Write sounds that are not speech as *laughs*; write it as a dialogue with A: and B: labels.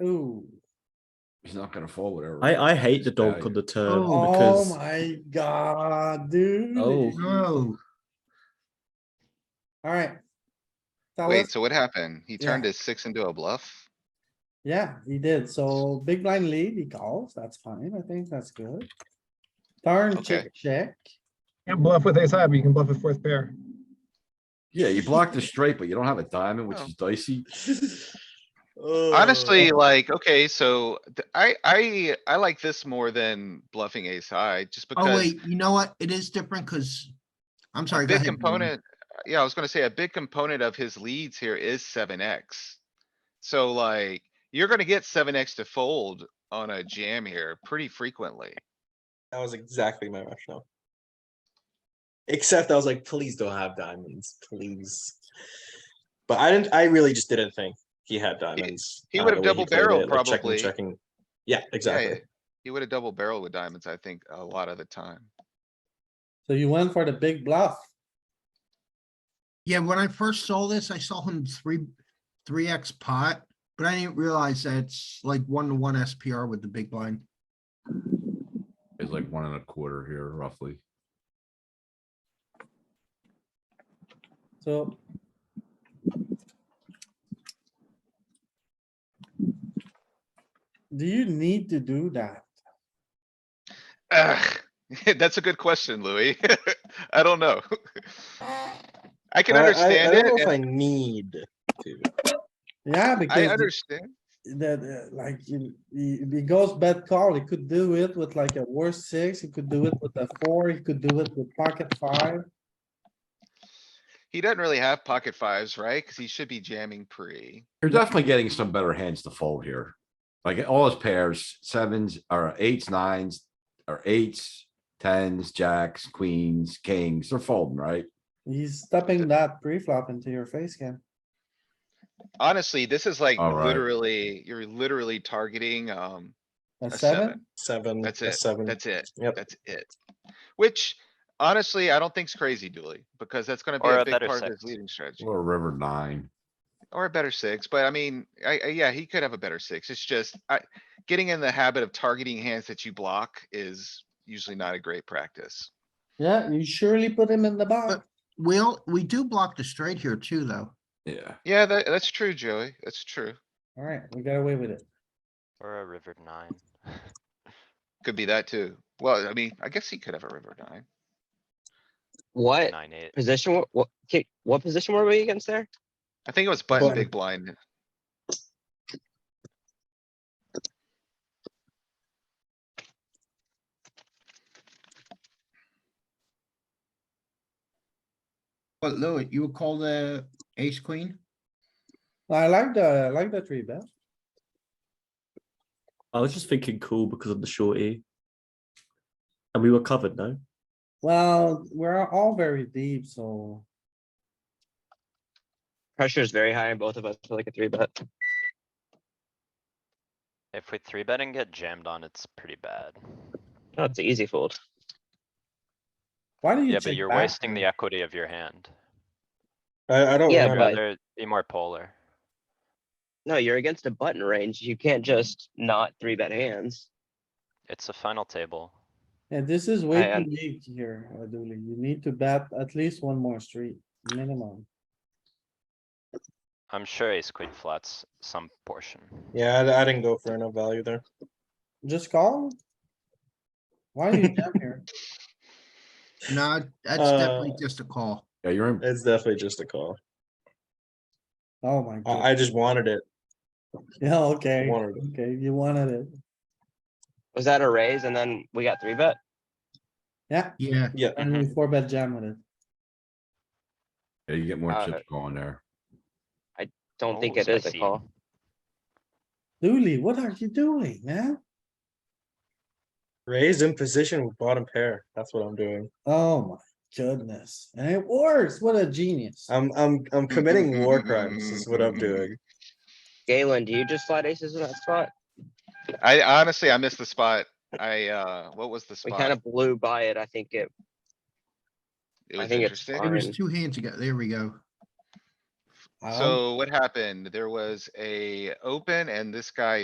A: Ooh,
B: He's not gonna fold whatever.
C: I, I hate the
B: his
C: donk
B: value.
C: on the turn
D: Oh.
A: oh
C: because
A: my god, *laughs* dude.
C: Oh.
D: No,
A: Alright. Tell
E: Wait,
A: us,
E: so what happened? He turned
A: Yeah.
E: his six into a bluff?
A: yeah, he did, so big blind lead, he calls, that's fine, I think that's good. Turn,
E: Okay.
A: check, check,
F: Can't bluff with ace high, but you can bluff with fourth pair.
B: Yeah, you block the straight, but you don't have a diamond, which
E: Oh.
B: is dicey.
G: *laughs* Oh,
D: Oh.
E: Honestly, like, okay, so th- I, I, I like this more than bluffing ace high, just
D: oh
E: because
D: wait, you know what? It is different because, I'm sorry.
E: a
D: go
E: big
D: ahead, Norman.
E: component. uh, Yeah, I was gonna say a big component of his leads here is seven X. So like, you're gonna get seven X to fold on a jam here pretty frequently.
G: That was exactly my rationale. Except I was like, please don't have diamonds, please. But I didn't. I really just didn't think he had diamonds.
E: he
G: I don't
E: would've
G: know the way played
E: double-barreled
G: it, like checking,
E: probably.
G: Checking. Yeah,
E: Yeah,
G: exactly.
E: He would have double barreled with diamonds, I think, a lot of the time.
A: so you went for the big bluff,
D: Yeah, when I first saw this, I saw him three, three X pot, but I didn't realize that it's like one to one SPR with the big blind.
B: It's like one and a quarter here roughly.
A: so. Do you need to do that?
E: Ugh, *laughs* that's a good question, Louis. *laughs* I don't know. *laughs* I can
G: I- I-
E: understand
G: I,
E: it.
G: don't know if
E: and
G: I need to.
A: Yeah,
E: I
A: because
E: understand.
A: that, uh, like, you- he, he goes bad call, he could do it with like a worse six, he could do it with a four, he could do it with pocket five.
E: He doesn't really have pocket fives, right? Cuz he should be jamming pre.
B: You're definitely getting some better hands to fold here. Like all his pairs, sevens or eights, nines, or eights, tens, jacks, queens, kings, they're folding, right?
A: He's stepping that pre-flop into your face, Ken.
E: Honestly, this is like
B: All right.
E: literally, you're literally targeting, um,
A: A
E: a
A: seven?
E: seven.
G: Seven.
E: That's
G: a
E: it.
G: Seven.
E: That's it.
G: Yep.
E: That's it. Which honestly, I don't think's crazy, Dooley, because that's gonna be
H: Or
E: a
H: a
E: big
H: better
E: part of his
H: six.
E: leading strategy.
B: Or a river nine.
E: Or a better six, but I mean, I, I, yeah, he could have a better six. It's just, I, getting in the habit of targeting hands that you block is usually not a great practice.
A: Yeah, you surely put him in the box.
D: Well, we do block the straight here too, though.
B: Yeah.
E: Yeah, that, that's true, Joey. That's true.
A: Alright, we got away with it.
H: Or a river nine.
E: Could be that too. Well, I mean, I guess he could have a river nine.
I: What
H: Nine eight.
I: position, wa- what, ki- what position were we against there?
E: I think it was button
G: Button.
E: big blind.
D: But Louis, you would call the ace queen?
A: I like the, I like the three bet.
C: I was just thinking cool because of the short E. And we were covered, no?
A: Well, we're all very deep, so
I: Pressure is very high on both of us for like a three bet.
H: If we three bet and get jammed on, it's pretty bad.
I: No, it's an easy fold.
A: why do you
H: Yeah,
A: check
H: but you're
A: back?
H: wasting the equity of your hand.
G: I, I don't.
I: Yeah,
H: I'd
G: remember.
I: but-
H: rather be more polar.
I: No, you're against a button range. You can't just not three bet hands.
H: It's a final table.
A: And this is way
I: I
A: too
I: un-
A: deep here, uh, Dooley. You need to bet at least one more street, minimum.
H: I'm sure ace queen flats some portion.
G: Yeah, I, I didn't go for enough value there.
A: Just call? Why are you down here?
D: No, that's
G: Uh,
D: definitely just a call.
B: Yeah, you're in.
G: It's definitely just a call.
A: Oh my
G: I,
A: god.
G: I just wanted it.
A: Yeah, okay,
G: Wanted it.
A: okay, you wanted it.
I: Was that a raise and then we got three bet?
A: Yeah,
D: Yeah,
G: Yeah.
A: and
G: *laughs*
A: we four bet jam with it.
B: Yeah, you get more
I: Uh,
B: chips going there.
I: Don't think
H: Oh,
I: it is a
H: spicy.
I: call.
A: Dooley, what are you doing, man?
G: Raise in position with bottom pair. That's what I'm doing.
A: Oh my goodness, and it works. What a genius.
G: I'm I'm I'm committing war crimes. Is what I'm doing.
I: Galen, do you just slide aces in that spot?
E: I honestly, I missed the spot. I, uh, what was the
I: We kind
E: spot?
I: of blew by it. I think it,
E: It
I: I
E: was
I: think it's
E: interesting.
D: there was
I: fine.
D: two hands ago. There we go.
A: Um,
G: Um,
E: So what happened? There was a open and this guy